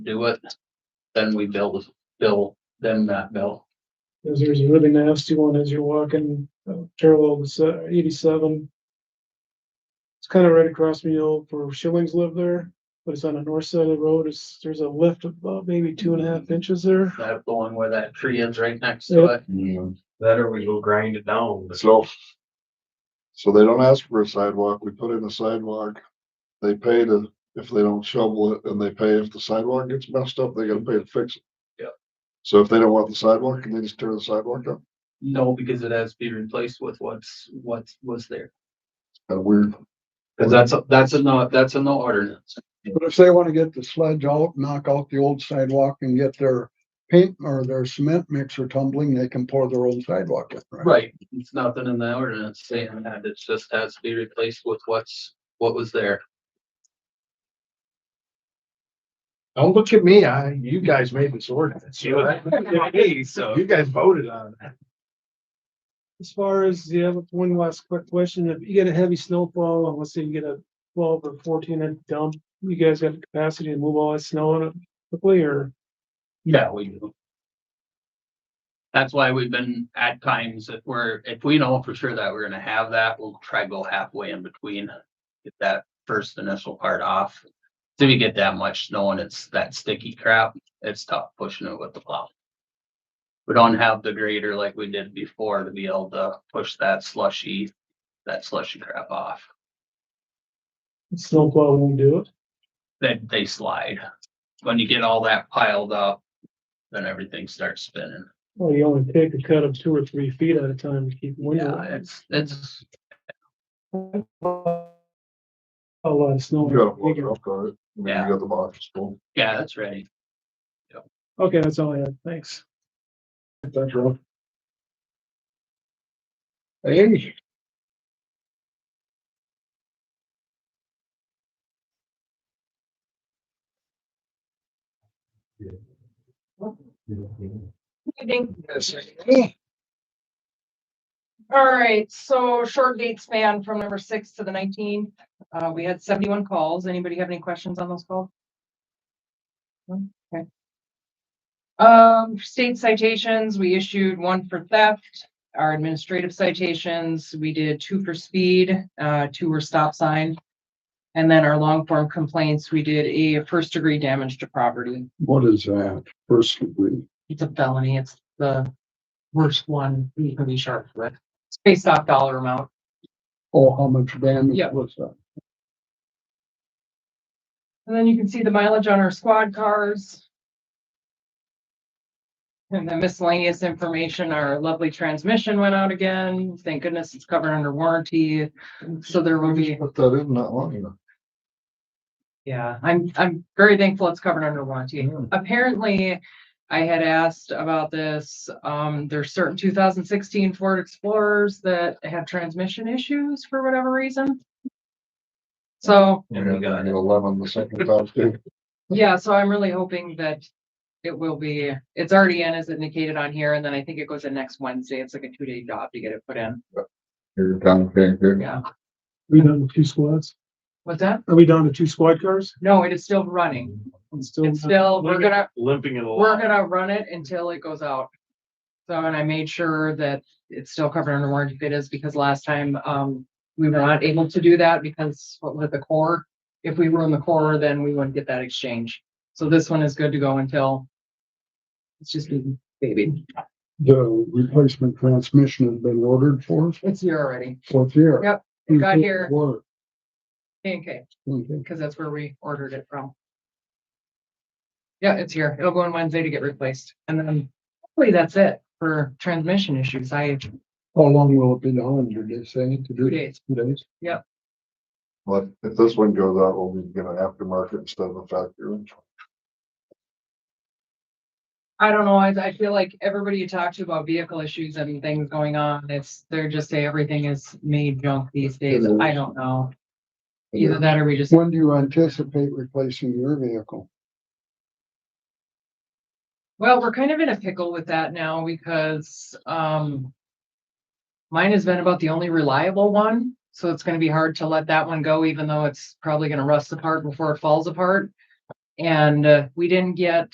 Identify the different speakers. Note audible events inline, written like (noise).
Speaker 1: do it, then we bill, bill them that bill.
Speaker 2: Cause there's a really nasty one as you're walking uh, parallel to eighty-seven. It's kind of right across from the old for Shillings live there, but it's on the north side of the road. It's, there's a lift of about maybe two and a half
Speaker 1: (laughs)
Speaker 2: inches there.
Speaker 1: That the one where that tree is right next to it.
Speaker 3: That or we go grind it down.
Speaker 4: So. So they don't ask for a sidewalk, we put in a sidewalk. They pay to, if they don't shovel it, and they pay if the sidewalk gets messed up, they gotta pay to fix it.
Speaker 1: Yep.
Speaker 4: So if they don't want the sidewalk, can they just tear the sidewalk up?
Speaker 1: No, because it has to be replaced with what's, what was there.
Speaker 4: Kind of weird.
Speaker 1: Cause that's, a- that's a no, that's a no ordinance.
Speaker 5: But if they wanna get the sledge out, knock out the old sidewalk and get their paint or their cement mixer tumbling, they can pour their own sidewalk in, right?
Speaker 1: Right, it's nothing in the ordinance saying that. It just has to be replaced with what's, what was there.
Speaker 3: Don't look at me, I, you guys made this ordinance.
Speaker 1: so.
Speaker 3: You guys voted on it.
Speaker 2: As far as, yeah, one last quick question. If you get a heavy snowfall, and let's say you get a twelve or fourteen inch dump, you guys got the capacity to move all that snow in it quickly or?
Speaker 1: Yeah, we do. That's why we've been at times if we're, if we know for sure that we're gonna have that, we'll try go halfway in between. Get that first initial part off. So we get that much snow and it's that sticky crap, it's tough pushing it with the plow. We don't have the grader like we did before to be able to push that slushy, that slushy crap off.
Speaker 2: Snowplow won't do it.
Speaker 1: Then they slide. When you get all that piled up, then everything starts spinning.
Speaker 2: Well, you only take a cut of two or three feet at a time to keep wind
Speaker 1: Yeah,
Speaker 2: out.
Speaker 1: it's, it's,
Speaker 2: A lot of snow.
Speaker 4: You got a block off cart, and then
Speaker 1: Yeah.
Speaker 4: you got the box full.
Speaker 1: yeah, that's right.
Speaker 2: Okay, that's all I had. Thanks.
Speaker 4: Thanks, Rob.
Speaker 5: Hey,
Speaker 6: Evening.
Speaker 5: yes, hey,
Speaker 6: All right, so short date span from number six to the nineteen. Uh, we had seventy-one calls. Anybody have any questions on those calls? No? Okay. Um, state citations, we issued one for theft. Our administrative citations, we did two for speed, uh, two were stop sign. And then our long form complaints, we did a first degree damage to property.
Speaker 5: what is that? First degree,
Speaker 6: It's a felony. It's the worst one you can be charged with. It's based off dollar amount.
Speaker 5: oh, how much damage
Speaker 6: Yeah.
Speaker 5: was that?
Speaker 6: And then you can see the mileage on our squad cars. And the miscellaneous information, our lovely transmission went out again. Thank goodness it's covered under warranty. So there will be,
Speaker 4: Put that in not long enough.
Speaker 6: yeah, I'm, I'm very thankful it's covered under warranty. Apparently, I had asked about this. Um, there's certain two thousand sixteen Ford Explorers that have transmission issues for whatever reason. So
Speaker 3: And we got it.
Speaker 4: Eleven the second time
Speaker 5: (laughs)
Speaker 4: too.
Speaker 6: Yeah, so I'm really hoping that it will be, it's already in as indicated on here, and then I think it goes in next Wednesday. It's like a two-day job to get it put in.
Speaker 4: Here, down here, here.
Speaker 6: Yeah,
Speaker 2: We down to two squads?
Speaker 6: what's that?
Speaker 2: Are we down to two squad cars?
Speaker 6: No, it is still running.
Speaker 2: It's still.
Speaker 6: It's still, we're gonna,
Speaker 3: Limping it
Speaker 6: we're
Speaker 3: along.
Speaker 6: gonna run it until it goes out. So, and I made sure that it's still covered under warranty if it is, because last time, um, we were not able to do that because with the core. If we ruin the core, then we wouldn't get that exchange. So this one is good to go until it's just being babied.
Speaker 5: The replacement transmission had been ordered for
Speaker 6: It's here already.
Speaker 5: fourth year.
Speaker 6: Yep, it got here.
Speaker 5: Work,
Speaker 6: K and K,
Speaker 5: okay.
Speaker 6: because that's where we ordered it from. Yeah, it's here. It'll go on Wednesday to get replaced. And then hopefully that's it for transmission issues. I,
Speaker 5: How long will it be down, did they say? to do?
Speaker 6: Two days.
Speaker 5: Two days?
Speaker 4: But if this one goes out, we'll be getting an aftermarket instead of a factory.
Speaker 6: I don't know, I, I feel like everybody you talk to about vehicle issues and things going on, it's, they're just say everything is made junk these days. I don't know. Either that or we just,
Speaker 5: When do you anticipate replacing your vehicle?
Speaker 6: well, we're kind of in a pickle with that now because, um, mine has been about the only reliable one, so it's gonna be hard to let that one go, even though it's probably gonna rust apart before it falls apart. And uh, we didn't get